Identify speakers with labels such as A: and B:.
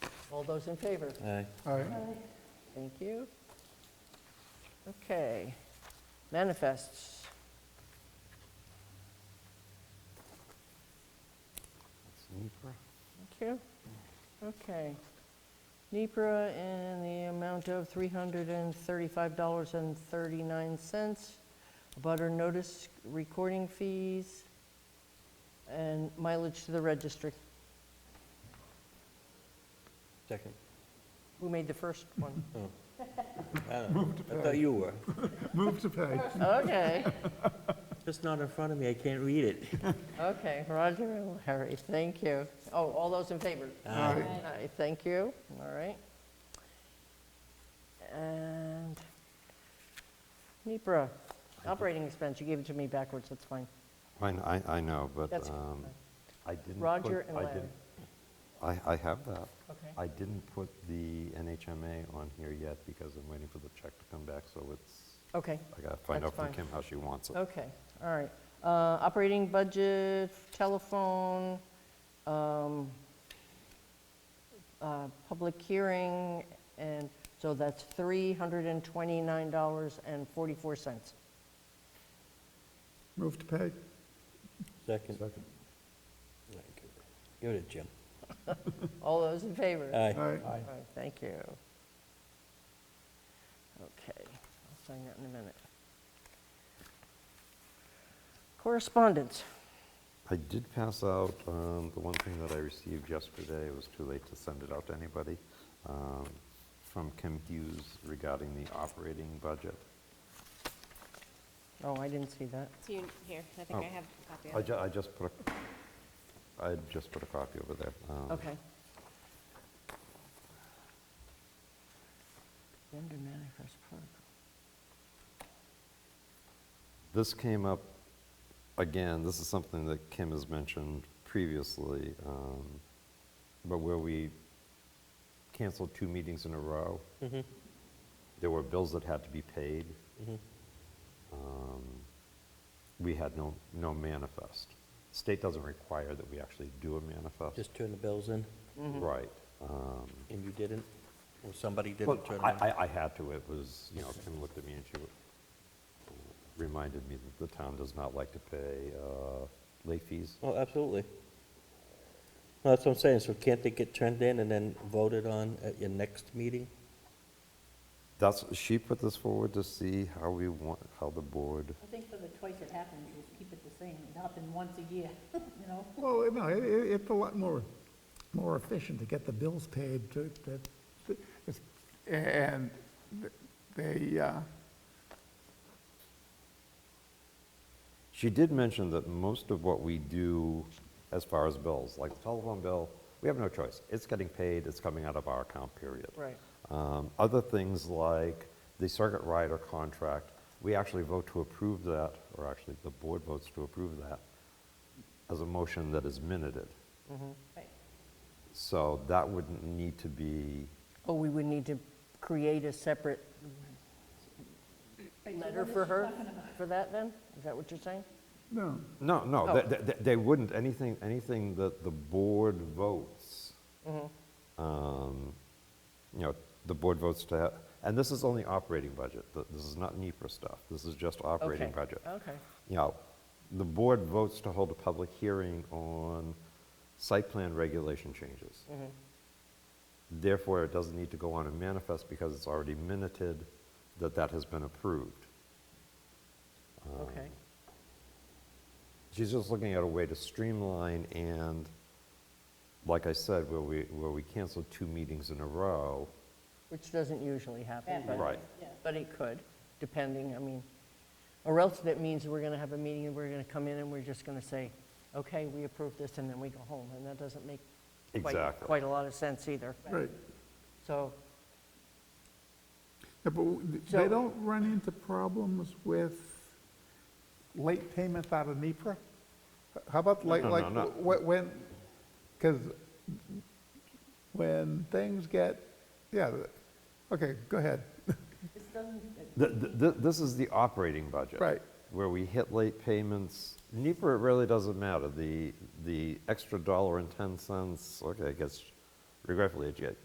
A: All those in favor?
B: Aye.
C: Aye.
A: Thank you. Okay, manifests. Thank you. Okay. NEPR in the amount of $335.39. Butter notice, recording fees, and mileage to the registry.
B: Second.
A: Who made the first one?
B: I thought you were.
C: Move to pay.
A: Okay.
B: Just not in front of me, I can't read it.
A: Okay, Roger and Larry, thank you. Oh, all those in favor?
B: Aye.
A: Aye, thank you, all right. And NEPR, operating expense, you gave it to me backwards, that's fine.
D: I, kn- I, I know, but
A: That's-
D: um, I didn't. put-
A: Roger and
D: I
A: Larry.
D: didn't- I, I have that.
A: Okay.
D: I didn't put the NHMA on here yet because I'm waiting for the check to come back, so it's,
A: Okay,
D: I gotta find
A: That's
D: out from
A: fine. Oh.
D: Kim how she wants it.
A: okay, all right. Uh, Operating budget, telephone, um, uh, public hearing, and so that's $329.44.
C: Move to pay.
B: Second. Give it to Jim.
A: All those in favor?
B: Aye.
C: Aye.
A: All right, Thank you. Okay, I'll sign that in a minute. Correspondence.
D: I did pass out, um, the one thing that I received yesterday, it was too late to send it out to anybody, um, from Kim Hughes regarding the operating budget.
A: Oh, I didn't see that.
E: It's you here, I think I
D: Oh.
E: have a copy of
D: I
E: it.
D: ju, I just put a, I just put a copy over there. um,
A: Okay. Vendor manifest protocol.
D: This came up, again, this is something that Kim has mentioned previously, um, but where we canceled two meetings in a row.
B: Mm-hmm,
D: There were bills that had to be paid. Um, We had no, no manifest. State doesn't require that we actually do a manifest.
B: Just mm-hmm. turn the bills in,
A: Mm-hmm.
D: Right. Um,
B: and you didn't, or somebody didn't
D: But
B: turn
D: I,
B: them in.
D: I- I had to, it was, you know, Kim looked at me and she reminded me that the town does not like to pay uh, late fees.
B: Oh, absolutely. Well, that's what I'm saying, so can't they get turned in and then voted on at your next meeting?
D: That's, she put this forward to see how we want, how the board,
F: I think for the twice it happens, you just keep it the same, it happened once a year, you know?
C: Well, no, it, it- it's a lot more, more efficient to get the bills paid to, to, it's- and th- they, uh,
D: she did mention that most of what we do as far as bills, like the telephone bill, we have no choice. It's getting paid, it's coming out of our account, period.
A: Right.
D: Um, Other things like the circuit rider contract, we actually vote to approve that, or actually, the board votes to approve that as a motion that is minuted.
F: Right.
D: So that wouldn't need to be,
A: Oh, we would need to create a separate
F: Right, so
A: letter
F: what is
A: for
F: she
A: her,
F: talking about?
A: for that then? Is that what you're saying?
C: no,
D: no, no,
A: Oh.
D: they- they- they wouldn't, anything, anything that the board votes,
A: Mm-hmm.
D: um, you know, the board votes to, ha- and this is only operating budget, Th- this is not NEPR stuff, this is just operating
A: Okay,
D: budget.
A: Okay,
D: you know, the board votes to hold a public hearing on site plan regulation changes.
A: Mm-hmm.
D: Therefore, it doesn't need to go on and manifest because it's already minuted that that has been approved.
A: okay.
D: She's just looking at a way to streamline and, like I said, where we, where we canceled two meetings in a row.
A: Which doesn't usually happen,
F: That
A: but.
D: Right.
F: Yeah.
A: But it could, depending, I mean, or else that means we're going to have a meeting and we're going to come in and we're just going to say, okay, we approve this, and then we go home, and that doesn't make quite,
D: Exactly.
A: quite a lot of sense either.
C: right.
A: So,
C: Yeah, But
A: So-
C: they don't run into problems with late payments out of NEPR? How about like,
D: no,
C: like,
D: no.
C: wh- when, because when things get, yeah, okay, go ahead.
F: This doesn't,
D: Th- th- th- This is the operating budget.
C: Right.
D: Where we hit late payments. NEPR, it really doesn't matter. The, the extra dollar and 10 cents, okay, I guess regretfully, it get-